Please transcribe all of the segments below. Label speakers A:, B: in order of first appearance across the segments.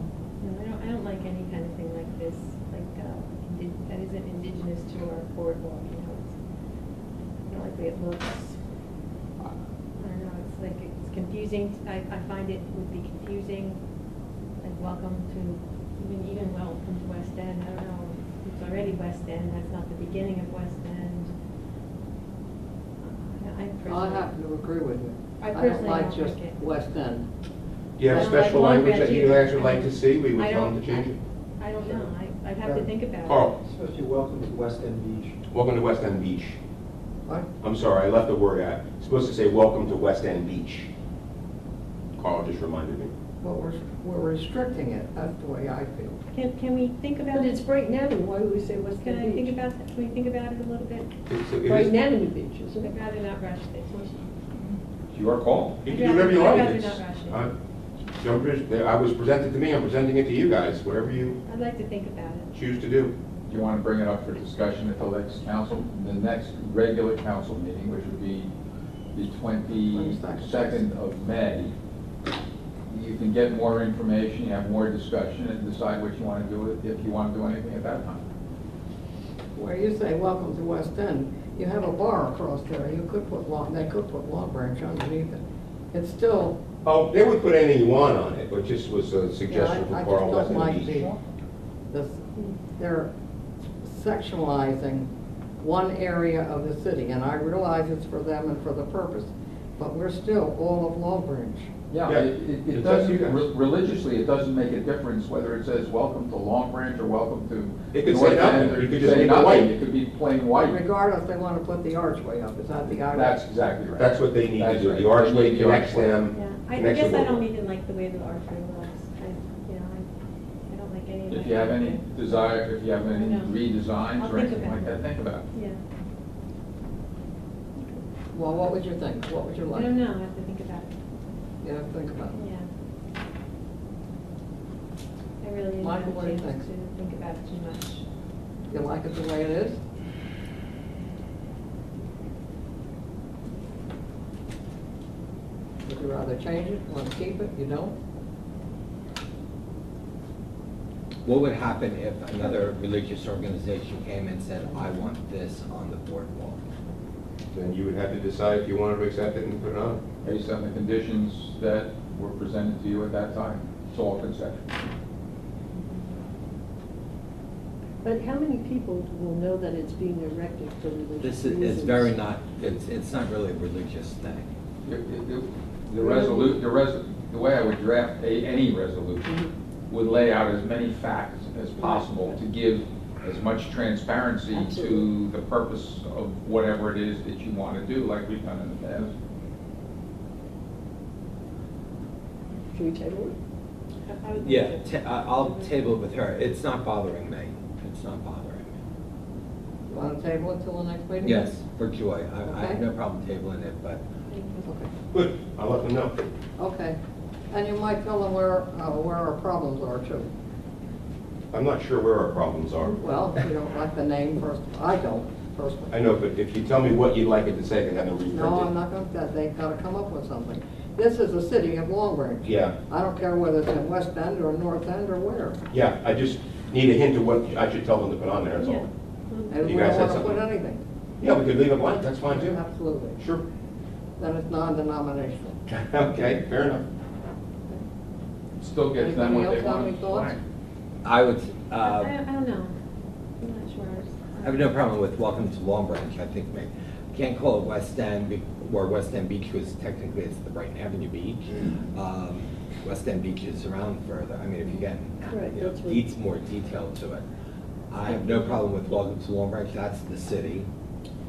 A: uh, is to our boardwalk, you know, it's not like we have lots. I don't know, it's like, it's confusing, I, I find it would be confusing, like, welcome to, even, even welcome to West End, I don't know, it's already West End, that's not the beginning of West End. Uh, I I
B: I
A: personally.
B: happen to agree with you.
A: I personally
B: like
A: don't
B: just
A: like it.
B: West End.
C: Do you have
A: I don't like
C: special
A: long
C: language that you
A: graduates.
C: guys would like to see? We would
A: I
C: tell them
A: don't-
C: to change it.
A: I I don't know, I, I'd have to
D: Yeah.
A: think about it.
C: Carl,
D: Especially welcome to West End Beach.
C: welcome to West End Beach.
D: What?
C: I'm sorry, I left the word out. It's Supposed to say, welcome to West End Beach. Carl just reminded me.
B: Well, we're, we're restricting it, that's the way I feel.
A: Can, can we think about
E: But it's
A: it?
E: Breakneck, why would we say West
A: Can I
E: End
A: think
E: Beach?
A: about, that? can we think about it a little bit?
C: It's- it is-
E: Breakneck Beach, isn't
A: I'd
E: it?
A: rather not rush this.
C: It's your call. You can do
A: I'd
C: whatever you
A: rather-
C: like.
A: I'd rather
C: It's-
A: not rush it.
C: I'm- don't pres- I was presented to me, I'm presenting it to you guys, whatever you
A: I'd like to think about it.
C: choose to do.
F: Do you want to bring it up for discussion at the next council, the next regular council meeting, which would be the twenty-second of May? You can get more information, you have more discussion, and decide what you want to do, with it, if you want to do anything at that time.
B: Where you say, welcome to West End, you have a bar across there, you could put Long, they could put Long Branch underneath it. It's still,
C: Oh, they would put anything you want on it, but just was a suggestion
B: Yeah, I-
C: for
B: I
C: Carl,
B: just
C: West
B: don't
C: End
B: like
C: Beach.
B: the- this, they're sectionalizing one area of the city, and I realize it's for them and for the purpose, but we're still all of Long Branch.
F: Yeah,
C: Yeah,
F: it- it
C: it's
F: it
C: up to you guys.
F: doesn't, re- religiously, it doesn't make a difference whether it says, welcome to Long Branch, or welcome to.
C: It could say
F: North End,
C: nothing. You
F: or It
C: could
F: could
C: just
F: say
C: make it
F: nothing,
C: white.
F: it could be plain white.
B: Regardless, they want to put the archway up, is that the archway?
F: That's exactly right.
C: That's what they need to
F: That's
C: do.
F: right.
C: The
F: They
C: archway
F: need the
C: connects
F: archway.
C: them.
A: Yeah, I- I
C: connects
A: guess
C: the
A: I don't
C: world.
A: even like the way the archery looks. I, you know, I, I don't like any of that.
F: If you have any desire, if you have any
A: No. I'll
F: redesigns or
A: think
F: anything
A: about
F: like
A: it.
F: that, think about it.
A: Yeah,
B: Well, what would you think? What would you
A: I
B: like?
A: don't know, I have to think about it,
B: You know, think about it.
A: yeah. I really didn't have
B: Michael, what do
A: a
B: you
A: chance to
B: think?
A: think about it too much.
B: You like it the way it is? Would you rather change it, want to keep it, you don't?
G: What would happen if another religious organization came and said, I want this on the boardwalk?
C: Then you would have to decide if you wanted to accept it and put it on.
F: based on the conditions that were presented to you at that time. It's all conceptual.
E: But how many people will know that it's being erected for religious
G: This
E: reasons?
G: is, it's very not, it's, it's not really a religious thing.
F: It- it- it- The resolu, the res, the way I would draft a, any resolution would lay out as many facts as possible to give as much transparency to
E: Absolutely.
F: the purpose of whatever it is that you want to do, like we've done in the past.
E: Should we table
A: I- I would like
G: Yeah,
A: to-
G: ta- I- I'll table it with her. It's not bothering me. It's not bothering me.
B: You want to table it till the next meeting?
G: Yes, for joy. I, I have
B: Okay.
G: no problem tabling it, but
A: Thank you.
B: Okay,
C: Good, I'll let them know.
B: okay. And you might tell them where, uh, where our problems are too.
C: I'm not sure where our problems are.
B: Well, if you don't like the name first, I don't
C: I
B: personally.
C: know, but if you tell me what you'd like it to say, I can have it reprinted.
B: No, I'm not going to, they've got to come up with something. This is the city of Long Branch.
C: Yeah,
B: I don't care whether it's in West End or North End or where.
C: yeah, I just need a hint of what I should tell them to put on there, that's
A: Yeah.
C: all.
B: And we
C: You guys
B: don't
C: had
B: want to put
C: something?
B: anything.
C: Yeah, we could leave it blank, that's fine too.
B: Absolutely.
C: Sure.
B: Then it's non-denominational.
C: Okay, fair enough.
F: Still gets them what they
B: Anybody else have any
F: want.
B: thoughts?
G: I would,
A: I,
G: uh,
A: I don't know, I'm not sure.
G: I have no problem with Welcome to Long Branch, I think, may Can't call it West End, be- where West End Beach was technically, it's the Brighton Avenue Beach.
E: Mm.
G: Um, West End Beach is around further, I mean, if you get,
E: Right,
G: you know,
E: that's right.
G: needs more detail to it. I have no problem with Welcome to Long Branch, that's the city.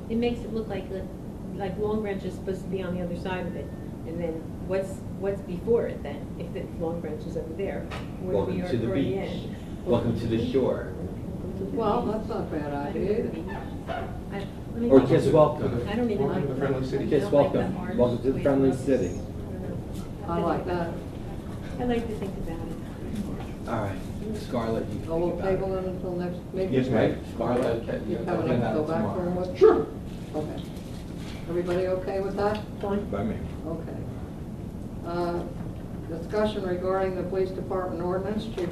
A: It makes it look like, the- like Long Branch is supposed to be on the other side of it, and then what's, what's before it then, if the Long Branch is over there? where we
G: Welcome
A: are
G: to the
A: already
G: beach.
A: in.
G: Welcome to the shore.
B: Well, that's not a bad idea either.
A: I- let me-
G: Or just welcome.
A: I don't even like.
C: Welcome to the friendly city.
A: I
G: Just
A: don't like the
G: welcome.
A: orange
G: Welcome to the
A: way
G: friendly
A: it looks.
G: city.
A: I
B: I
A: don't know.
B: like that.
A: I like to think about it.
G: All right, Scarlett, you
B: So
G: think
B: we'll table
G: about
B: it until next meeting?
C: Yes,
G: it.
C: ma'am.
G: Right, Scarlett?
B: You have enough to go back for what?
C: Sure.
B: Okay. Everybody okay with that?
A: Fine.
G: By me.
B: Okay. Uh, Discussion regarding the police department ordinance, Chief